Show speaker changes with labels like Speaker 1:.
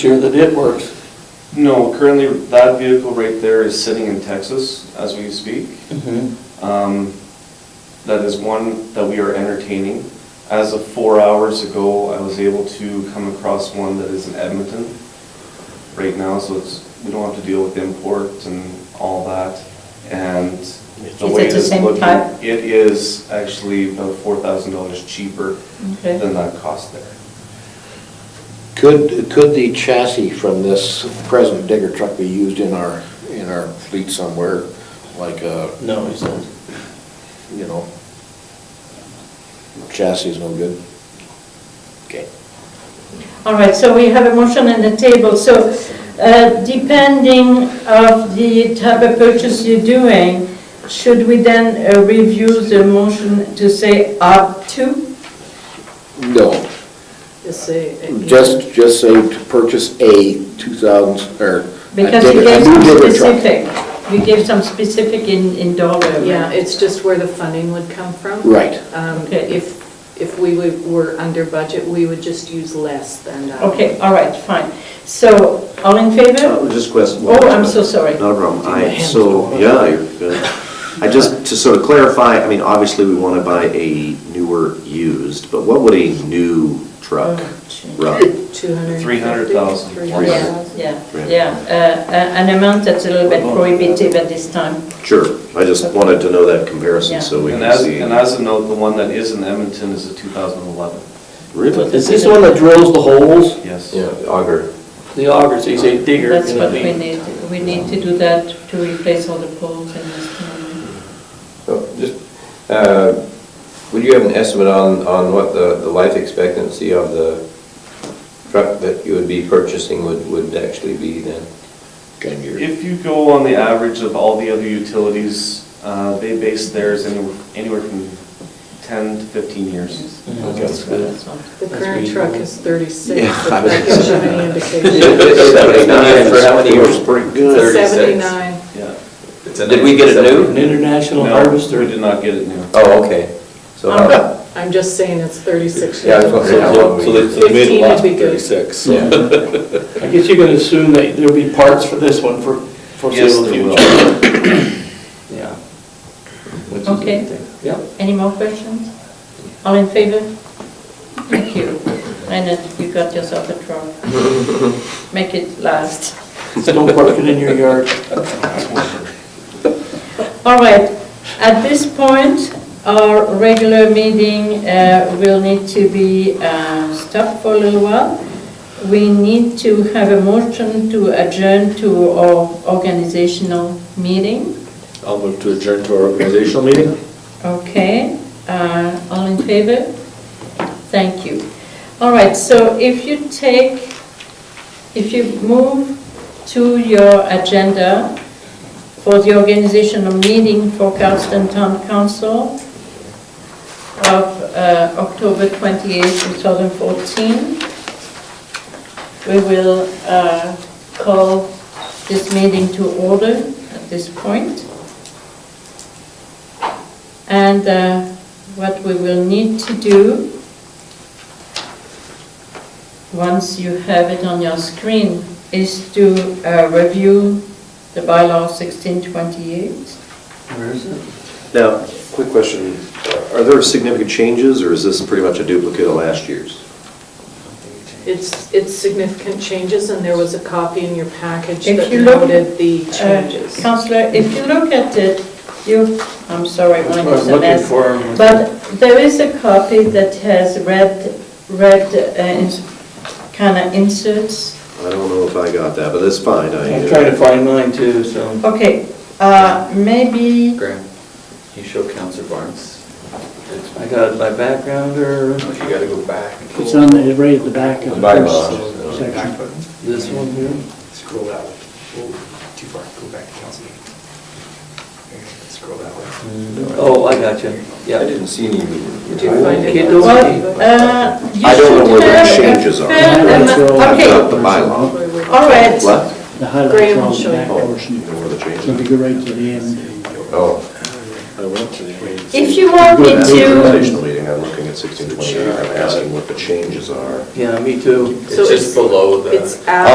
Speaker 1: sure that it works.
Speaker 2: No, currently, that vehicle right there is sitting in Texas as we speak.
Speaker 3: Mm-hmm.
Speaker 2: Um, That is one that we are entertaining. As of four hours ago, I was able to come across one that is in Edmonton right now, so it's, we don't have to deal with import and all that, and the
Speaker 3: it
Speaker 2: way
Speaker 3: the
Speaker 2: it's
Speaker 3: same
Speaker 2: looking,
Speaker 3: type?
Speaker 2: it is actually about four thousand dollars cheaper
Speaker 3: Okay.
Speaker 2: than that cost there.
Speaker 4: Could, could the chassis from this present digger truck be used in our, in our fleet somewhere, like a,
Speaker 1: No, he says.
Speaker 4: you know? Chassis is no good. Okay.
Speaker 3: All right, so we have a motion on the table, so uh, depending of the type of purchase you're doing, should we then uh, review the motion to say up to?
Speaker 4: No,
Speaker 3: Just.
Speaker 4: just, just say to purchase a 2000, or. a
Speaker 3: Because
Speaker 4: digger-
Speaker 3: you
Speaker 4: a
Speaker 3: gave
Speaker 4: new
Speaker 3: some
Speaker 4: digger truck.
Speaker 3: specific, you gave some specific in, in dollar.
Speaker 5: Yeah, it's just where the funding would come from.
Speaker 4: Right.
Speaker 5: Um,
Speaker 3: Okay.
Speaker 5: If, if we would- were under budget, we would just use less than uh, that.
Speaker 3: Okay, all right, fine. So, all in favor?
Speaker 6: Uh, Just a question.
Speaker 3: Oh, I'm so sorry.
Speaker 6: Not a problem. I, so, yeah, you're good. I just, to sort of clarify, I mean, obviously, we want to buy a newer used, but what would a new truck
Speaker 3: Oh, gee.
Speaker 6: run?
Speaker 5: 250,
Speaker 2: 300,000.
Speaker 5: 300,000.
Speaker 3: Yeah, yeah, uh, a- an amount that's a little bit prohibitive at this time.
Speaker 6: Sure, I just wanted to know that comparison, so we
Speaker 2: And
Speaker 6: can
Speaker 2: as,
Speaker 6: see.
Speaker 2: and as a note, the one that is in Edmonton is a 2011,
Speaker 6: Really?
Speaker 1: Is this the one that drills the holes?
Speaker 2: yes.
Speaker 6: auger.
Speaker 1: The augers, he's a digger.
Speaker 3: That's what
Speaker 1: gonna
Speaker 3: we
Speaker 1: be.
Speaker 3: need, we need to do that to replace all the poles and this thing.
Speaker 7: So, Just, uh, would you have an estimate on, on what the, the life expectancy of the truck that you would be purchasing would, would actually be then?
Speaker 4: Ten years.
Speaker 2: If you go on the average of all the other utilities, uh, they base theirs anywhere anywhere from 10 to 15 years.
Speaker 1: Mhm, That's good.
Speaker 3: That's all.
Speaker 5: The current truck is 36,
Speaker 6: Yeah, I
Speaker 5: but
Speaker 6: was
Speaker 5: that gives you
Speaker 6: gonna
Speaker 5: any indication.
Speaker 6: Seventy-nine for how many years? Pretty
Speaker 7: good. 36.
Speaker 5: 79.
Speaker 2: Yeah.
Speaker 7: Did we get a
Speaker 1: An
Speaker 7: new?
Speaker 1: international
Speaker 2: No,
Speaker 1: harvester.
Speaker 2: We did not get it new.
Speaker 7: Oh, okay. So how,
Speaker 5: I'm just saying it's 36
Speaker 7: yeah, I was
Speaker 5: years.
Speaker 7: wondering how long
Speaker 8: So
Speaker 7: we.
Speaker 8: they, so they made
Speaker 5: 15
Speaker 8: a
Speaker 5: would
Speaker 8: loss
Speaker 5: be
Speaker 8: of
Speaker 5: good.
Speaker 8: thirty-six.
Speaker 7: Yeah.
Speaker 1: I guess you can assume that there'll be parts for this one for
Speaker 2: Yes,
Speaker 1: foreseeable
Speaker 2: there
Speaker 1: future.
Speaker 2: will.
Speaker 1: Yeah.
Speaker 7: Which is a
Speaker 3: Okay.
Speaker 7: good thing.
Speaker 1: Yep.
Speaker 3: Any more questions? All in favor? Thank you. Leonard, you got yourself a truck. Make it last.
Speaker 1: So Don't park it in your yard.
Speaker 3: All right, at this point, our regular meeting uh, will need to be uh, stopped for a little while. We need to have a motion to adjourn to our organizational meeting.
Speaker 8: I'll move to adjourn to our organizational meeting.
Speaker 3: Okay, uh, all in favor? Thank you. All right, so if you take, if you move to your agenda for the organizational meeting for Cardston Town Council of uh, October 28, 2014, we will uh, call this meeting to order at this point. And uh, what we will need to do, once you have it on your screen, is to uh, review the bylaw 1628.
Speaker 1: Where is it?
Speaker 6: Now, quick question, are there significant changes, or is this pretty much a duplicate of last year's?
Speaker 5: It's, it's significant changes, and there was a copy in your package
Speaker 3: If
Speaker 5: that
Speaker 3: you look,
Speaker 5: noted the
Speaker 3: Uh,
Speaker 5: changes.
Speaker 3: Counselor, if you look at it, you, I'm sorry, mine is a mess.
Speaker 1: for him.
Speaker 3: But there is a copy that has red, red kind of inserts.
Speaker 6: I don't know if I got that, but that's fine. I- uh,
Speaker 1: I'm trying to find mine too, so.
Speaker 3: Okay, uh, maybe,
Speaker 8: Graham, you show Counselor Barnes. It's-
Speaker 1: I got my backgrounder,
Speaker 8: You gotta go back.
Speaker 9: It's on the, right at the back of the
Speaker 7: Bylaws.
Speaker 9: first section.
Speaker 1: this one here.
Speaker 10: Scroll that way. Oh, Too far, go back to council meeting. There you go. Scroll that way.
Speaker 1: Oh, I got you.
Speaker 7: I
Speaker 1: Yeah.
Speaker 7: didn't see any.
Speaker 5: Did you find it?
Speaker 1: Kiddo.
Speaker 3: well, uh, you
Speaker 6: I don't know
Speaker 3: should
Speaker 6: where the
Speaker 3: have a
Speaker 6: changes are.
Speaker 3: fair
Speaker 9: Yeah,
Speaker 3: amount-
Speaker 9: that's all.
Speaker 6: I've
Speaker 3: Okay,
Speaker 6: got the bylaw.
Speaker 5: Where we-
Speaker 3: all right.
Speaker 6: What?
Speaker 9: The highlights
Speaker 5: Graham
Speaker 9: are
Speaker 5: will
Speaker 9: on
Speaker 5: show
Speaker 9: the
Speaker 5: you.
Speaker 6: Oh,
Speaker 9: back portion.
Speaker 6: Where the changes?
Speaker 9: So if you go right to the end.
Speaker 7: Oh.
Speaker 3: If you want me
Speaker 6: At the
Speaker 3: to,
Speaker 6: organizational meeting, I'm looking at 1628, I'm asking what the changes are.
Speaker 1: Yeah, me too.
Speaker 5: So
Speaker 8: It's just below the.
Speaker 5: It's out.